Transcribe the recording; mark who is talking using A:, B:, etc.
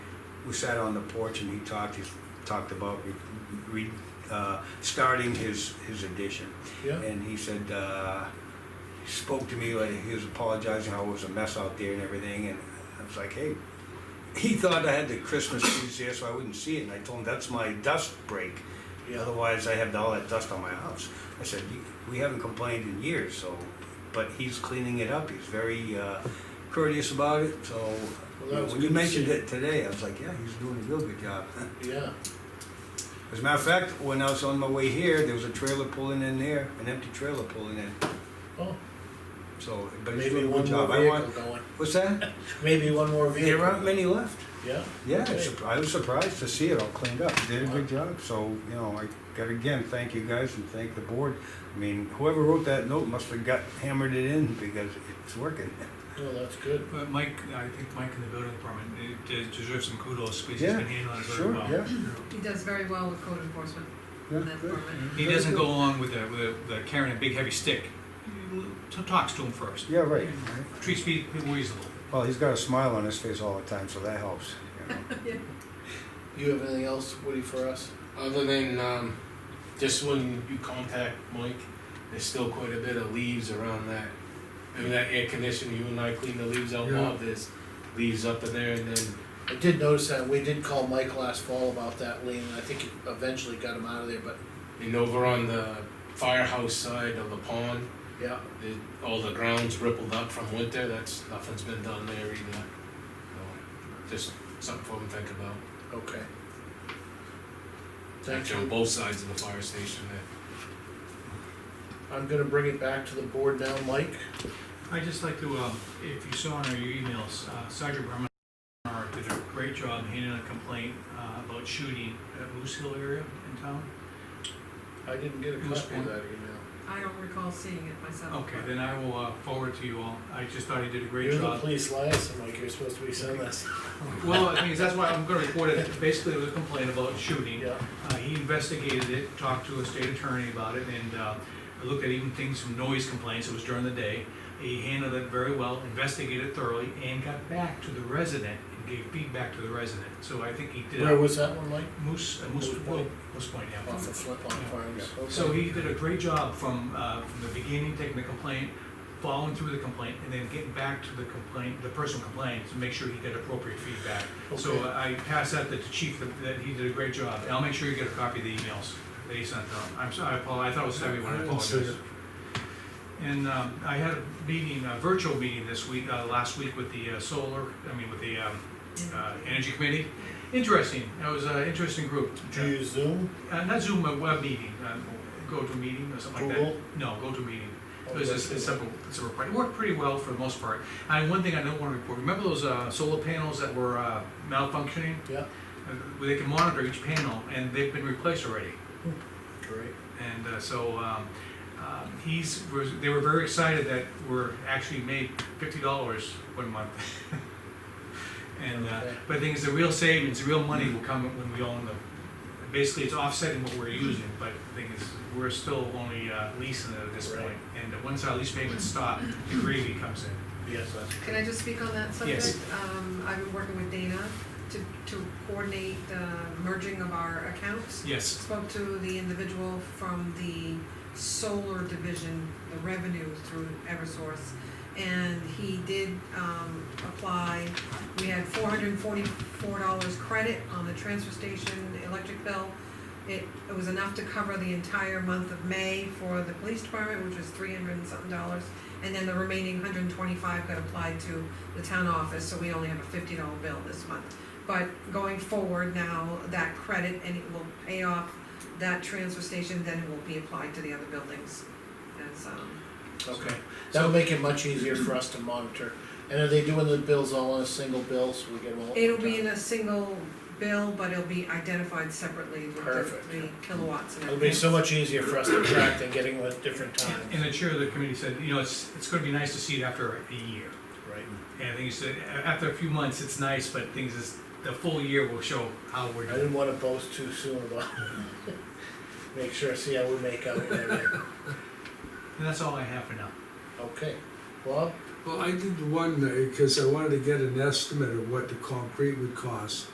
A: we sat on the porch and he talked, he talked about re, re, uh, starting his, his addition.
B: yeah,
A: And he said, uh, he spoke to me like he was apologizing how it was a mess out there and everything. And I was like, hey, he thought I had the Christmas trees there so I wouldn't see it. And I told him that's my dust break.
B: yeah,
A: Otherwise, I have all that dust on my house. I said, "You- we haven't complained in years, so, but he's cleaning it up. He's very uh, courteous about it, so.
B: Well, that was
A: When you
B: good to
A: mentioned
B: see.
A: it today, I was like, yeah, he's doing a real good job.
B: yeah,
A: As a matter of fact, when I was on my way here, there was a trailer pulling in there, an empty trailer pulling in,
B: oh,
A: so, but he's
B: maybe
A: doing a
B: one
A: good
B: more
A: job. I
B: vehicle
A: want,
B: going,
A: what's that?
B: maybe one more vehicle.
A: There aren't many left.
B: Yeah,
A: Yeah,
B: Okay.
A: surp- I was surprised to see it all cleaned up. They Did a good job, so, you know, I gotta again, thank you guys and thank the board. I mean, whoever wrote that note must have got, hammered it in because it's working.
B: no, Oh, that's good,
C: But Mike, I think Mike in the building department it de- deserves some kudos, because he's
A: Yeah,
C: been handling it
A: sure,
C: very well.
A: yeah.
C: you know.
D: He does very well with code enforcement
A: Yeah,
D: in that
A: good.
D: department.
C: He doesn't go along with the, with the carrying a big heavy stick. He t- Talks to him first,
A: Yeah, right.
C: treats people reasonable.
A: Well, he's got a smile on his face all the time, so that helps. you know.
B: you have anything else, Woody, for us?
E: Other than um, just when you contact Mike, there's still quite a bit of leaves around that. I mean, that air conditioner, you and I cleaned the leaves out
B: Yeah.
E: loud, there's leaves up in there and then,
B: I did notice that, we did call Mike last fall about that lien, I think he eventually got him out of there, but,
E: and over on the firehouse side of the pond,
B: yeah,
E: it, all the ground's rippled up from winter, that's, nothing's been done there either. So, Just something for them to think about.
B: okay. Thank
E: Actually, on
B: you,
E: both sides of the fire station there.
B: I'm gonna bring it back to the board now, Mike,
C: I'd just like to, um, if you saw in our- your emails, uh, Sergeant Bremer did a great job handling a complaint uh, about shooting at Moose Hill area in town.
B: I didn't get a
C: Who's
B: copy of
C: on?
B: that email.
D: I don't recall seeing it myself.
C: Okay,
D: but-
C: then I will uh, forward to you all. I just thought he did a great
B: You're the
C: job.
B: police liaison, Mike, you're supposed to be sending us,
C: Well, I mean, that's why I'm gonna report it. Basically, it was a complaint about shooting.
B: yeah,
C: Uh, he investigated it, talked to a state attorney about it, and, uh, looked at even things from noise complaints, it was during the day. He handled it very well, investigated thoroughly, and got back to the resident and gave feedback to the resident. So I think he did
B: where
C: a
B: was that one, Mike?
C: moose, a moose,
B: Moose Point.
C: well, moose point, yeah.
B: Off of Flintlock
C: Yeah.
B: Farms, okay.
C: So he did a great job from, uh, from the beginning, taking the complaint, following through the complaint, and then getting back to the complaint, the person who complained, to make sure he got appropriate feedback. So
B: Okay.
C: I pass that to the chief, that- that he did a great job, and I'll make sure you get a copy of the emails that he sent out. I'm sorry, Paul, I thought it was everyone, I
B: I didn't see
C: apologize. And, um, I had a meeting, a virtual meeting this week, uh, last week with the uh, solar, I mean, with the, um, uh, energy committee. Interesting, that was an interesting group.
B: Do you use Zoom?
C: Uh, not Zoom, a web meeting, uh, GoToMeeting or something like that.
B: Google?
C: No, GoToMeeting. It
B: Oh,
C: was
B: that's
C: just
B: good.
C: a simple, simple, part. it worked pretty well for the most part. And one thing I don't wanna report, remember those, uh, solar panels that were, uh, malfunctioning?
B: Yeah,
C: Uh, Where they can monitor each panel, and they've been replaced already.
B: great,
C: And, uh, so, um, uh, he's, was, they were very excited that we're actually made fifty dollars one month. And, uh,
B: Okay.
C: but the thing is, the real savings, the real money will come when we own them. Basically, it's offsetting what we're using, but the thing is, we're still only uh, leasing it at this
B: Right.
C: point. And uh, once our lease payments stop, the gravy comes in.
B: yes, that's
D: Can I just speak on that subject?
C: Yes.
D: Um, I've been working with Dana to, to coordinate the merging of our accounts.
C: Yes.
D: Spoke to the individual from the solar division, the revenue through Eversource, and he did, um, apply. We had four hundred and forty-four dollars credit on the transfer station electric bill. It, it was enough to cover the entire month of May for the police department, which was three hundred and something dollars. And then the remaining hundred and twenty-five got applied to the town office, so we only have a fifty dollar bill this month. But going forward now, that credit, and it will pay off that transfer station, then it will be applied to the other buildings as, um,
B: Okay,
C: So-
B: that'll make it much easier for us to monitor. And are they doing the bills all in a single bill, so we get them all? at
D: It'll be
B: one
D: in
B: time?
D: a single bill, but it'll be identified separately with
B: Perfect.
D: the- the kilowatts and everything.
B: It'll be so much easier for us to track than getting them at different
C: And
B: times,
C: the chair of the committee said, you know, it's, it's gonna be nice to see it after a year.
B: right?
C: And I think he said, a- after a few months, it's nice, but things is, the full year will show how we're
B: I
C: doing.
B: didn't wanna boast too soon about, make sure, see how we make out and everything.
C: And that's all I have for now.
B: Okay, Bob,
F: Well, I did one, because I wanted to get an estimate of what the concrete would cost.